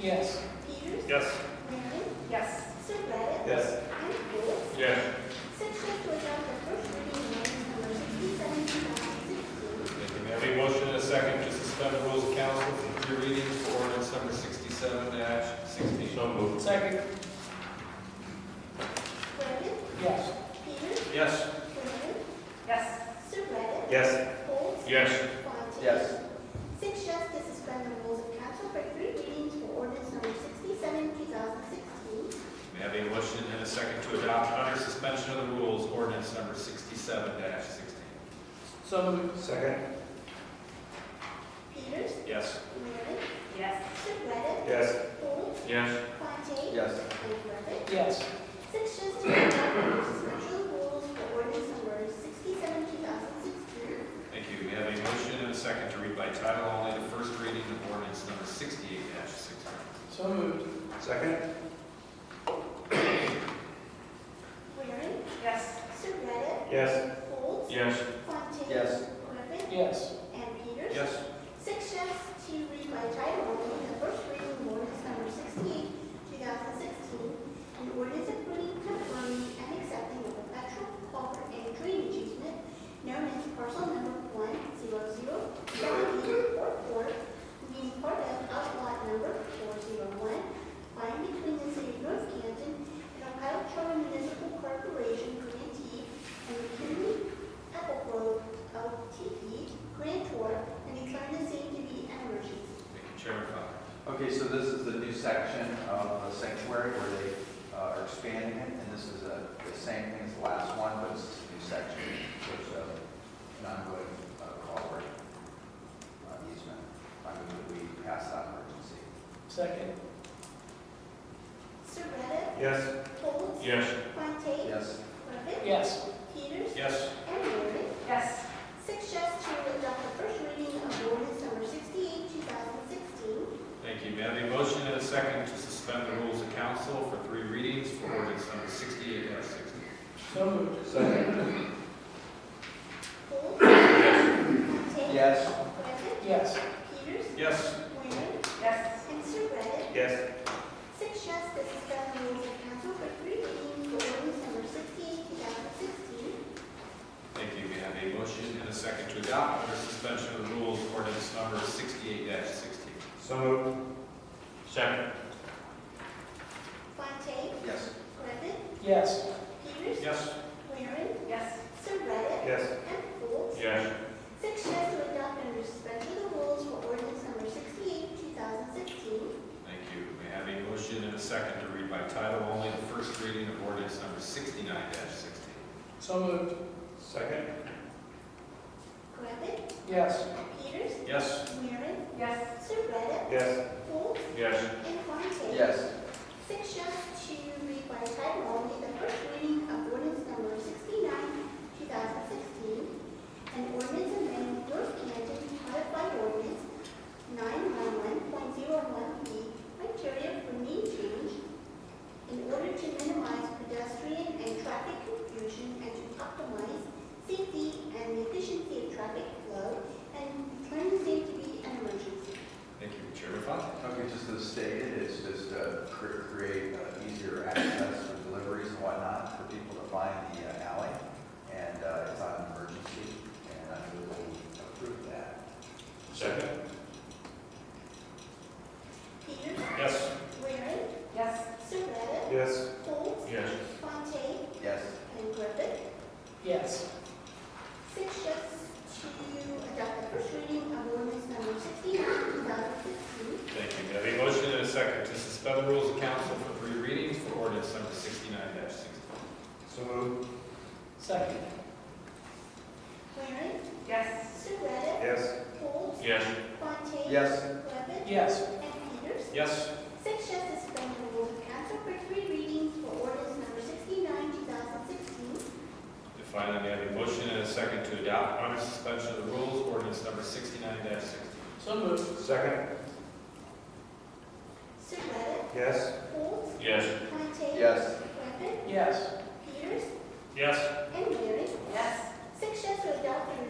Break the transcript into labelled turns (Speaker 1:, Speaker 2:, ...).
Speaker 1: Yes.
Speaker 2: Peters,
Speaker 3: Yes.
Speaker 2: Waring,
Speaker 4: Yes.
Speaker 2: Surratt,
Speaker 3: Yes.
Speaker 2: and Golds.
Speaker 3: Yes.
Speaker 2: Section to adopt the first reading of ordinance number sixty-seven, two thousand sixteen.
Speaker 3: May I have a motion and a second to suspend the rules of council for three readings for ordinance number sixty-seven sixteen? So moved.
Speaker 1: Second.
Speaker 2: Waring,
Speaker 1: Yes.
Speaker 2: Peters,
Speaker 3: Yes.
Speaker 2: Waring,
Speaker 4: Yes.
Speaker 2: Surratt,
Speaker 3: Yes.
Speaker 2: Golds.
Speaker 3: Yes.
Speaker 2: Fontaine.
Speaker 3: Yes.
Speaker 2: Six yes to suspend the rules of council for three readings for ordinance number sixty-seven, two thousand sixteen.
Speaker 3: May I have a motion and a second to adopt under suspension of the rules ordinance number sixty-seven sixteen?
Speaker 1: So moved. Second.
Speaker 2: Peters,
Speaker 3: Yes.
Speaker 2: Waring,
Speaker 4: Yes.
Speaker 2: Surratt,
Speaker 3: Yes.
Speaker 2: Golds,
Speaker 3: Yes.
Speaker 2: Fontaine.
Speaker 3: Yes.
Speaker 2: And Griffith.
Speaker 1: Yes.
Speaker 2: Sections to adopt special rules for ordinance number sixty-seven, two thousand sixteen.
Speaker 3: Thank you. We have a motion and a second to read by title only the first reading of ordinance number sixty-eight sixteen.
Speaker 1: So moved. Second.
Speaker 2: Waring,
Speaker 4: Yes.
Speaker 2: Surratt,
Speaker 1: Yes.
Speaker 2: Golds,
Speaker 3: Yes.
Speaker 2: Fontaine.
Speaker 1: Yes.
Speaker 2: Griffin,
Speaker 1: Yes.
Speaker 2: and Peters.
Speaker 3: Yes.
Speaker 2: Sections to read by title only, the first reading of ordinance number sixty-eight, two thousand sixteen, an ordinance approving, confirming, and accepting a perpetual culvert and drainage easement known as parcel number one zero zero seven eight four four, being part of outlot number four zero one, lying between the city of North Canton and Ohio Charter Municipal Corporation grantee and the Kennedy Apple Grove LTD grantor E, and declaring the same to be an emergency.
Speaker 3: Thank you, Chairman Fox.
Speaker 5: Okay, so this is the new section of the sanctuary where they uh, are expanding it, and this is uh, the same thing as the last one, but it's a new section, which is an ongoing uh, culvert uh, easement. I move that we pass that emergency.
Speaker 1: Second.
Speaker 2: Surratt,
Speaker 3: Yes.
Speaker 2: Golds,
Speaker 3: Yes.
Speaker 2: Fontaine,
Speaker 5: Yes,
Speaker 2: Griffin,
Speaker 1: Yes.
Speaker 2: Peters,
Speaker 3: Yes.
Speaker 2: and Waring.
Speaker 4: Yes.
Speaker 2: Six yes to adopt the first reading of ordinance number sixty-eight, two thousand sixteen.
Speaker 3: Thank you. May I have a motion and a second to suspend the rules of council for three readings for ordinance number sixty-eight sixteen?
Speaker 1: So moved.
Speaker 2: Golds, Fontaine,
Speaker 5: yes,
Speaker 2: Griffin,
Speaker 1: Yes.
Speaker 2: Peters,
Speaker 3: Yes.
Speaker 2: Waring,
Speaker 4: Yes.
Speaker 2: and Surratt.
Speaker 3: Yes.
Speaker 2: Six yes to suspend the rules of council for three readings for ordinance number sixty-eight, two thousand sixteen.
Speaker 3: Thank you. We have a motion and a second to adopt under suspension of the rules ordinance number sixty-eight sixteen.
Speaker 6: So moved.
Speaker 3: Second.
Speaker 2: Fontaine,
Speaker 5: yes,
Speaker 2: Griffin,
Speaker 1: Yes.
Speaker 2: Peters,
Speaker 3: Yes.
Speaker 2: Waring,
Speaker 4: Yes.
Speaker 2: Surratt,
Speaker 6: Yes.
Speaker 2: and Folds.
Speaker 3: Yes.
Speaker 2: Six yes to adopt under suspension of the rules for ordinance number sixty-eight, two thousand sixteen.
Speaker 3: Thank you. May I have a motion and a second to read by title only the first reading of ordinance number sixty-nine sixteen?
Speaker 1: So moved.
Speaker 6: Second?
Speaker 2: Griffin,
Speaker 1: Yes.
Speaker 2: Peters,
Speaker 3: Yes.
Speaker 2: Waring,
Speaker 4: Yes.
Speaker 2: Surratt,
Speaker 6: Yes.
Speaker 2: Folds,
Speaker 3: Yes.
Speaker 2: and Fontaine.
Speaker 5: yes.
Speaker 2: Six yes to read by title only the first reading of ordinance number sixty-nine, two thousand sixteen, and ordinance amending North Canton codified ordinance nine one one point zero one B criteria for name change in order to minimize pedestrian and traffic confusion and to optimize safety and efficiency of traffic flow and declaring the same to be an emergency.
Speaker 3: Thank you, Chairman Fox.
Speaker 5: Okay, just as stated, it's just to cr- create uh, easier access for deliveries and whatnot, for people to find the uh, alley, and uh, it's not an emergency, and I move that we approve that.
Speaker 3: Second.
Speaker 2: Peters,
Speaker 3: Yes.
Speaker 2: Waring,
Speaker 4: Yes.
Speaker 2: Surratt,
Speaker 6: Yes.
Speaker 2: Folds,
Speaker 3: Yes.
Speaker 2: Fontaine,
Speaker 5: Yes,
Speaker 2: And Griffith,
Speaker 1: Yes.
Speaker 2: six yes to adopt the first reading of ordinance number sixty-nine, two thousand sixteen.
Speaker 3: Thank you. May I have a motion and a second to suspend the rules of council for three readings for ordinance number sixty-nine sixteen?
Speaker 6: So moved.
Speaker 1: Second.
Speaker 2: Waring,
Speaker 4: Yes.
Speaker 2: Surratt,
Speaker 6: Yes.
Speaker 2: Folds,
Speaker 3: Yes.
Speaker 2: Fontaine.
Speaker 5: yes.
Speaker 2: Griffith,
Speaker 1: Yes.
Speaker 2: and Peters.
Speaker 3: Yes.
Speaker 2: Six yes to suspend the rules of council for three readings for ordinance number sixty-nine, two thousand sixteen.
Speaker 3: And finally, may I have a motion and a second to adopt under suspension of the rules ordinance number sixty-nine sixteen?
Speaker 1: So moved.
Speaker 6: Second?
Speaker 2: Surratt,
Speaker 6: Yes.
Speaker 2: Folds,
Speaker 3: Yes.
Speaker 2: Fontaine.
Speaker 5: Yes.
Speaker 2: Griffith,
Speaker 1: Yes.
Speaker 2: Peters,
Speaker 3: Yes.
Speaker 2: and Waring.
Speaker 4: Yes.
Speaker 2: Six yes to adopt the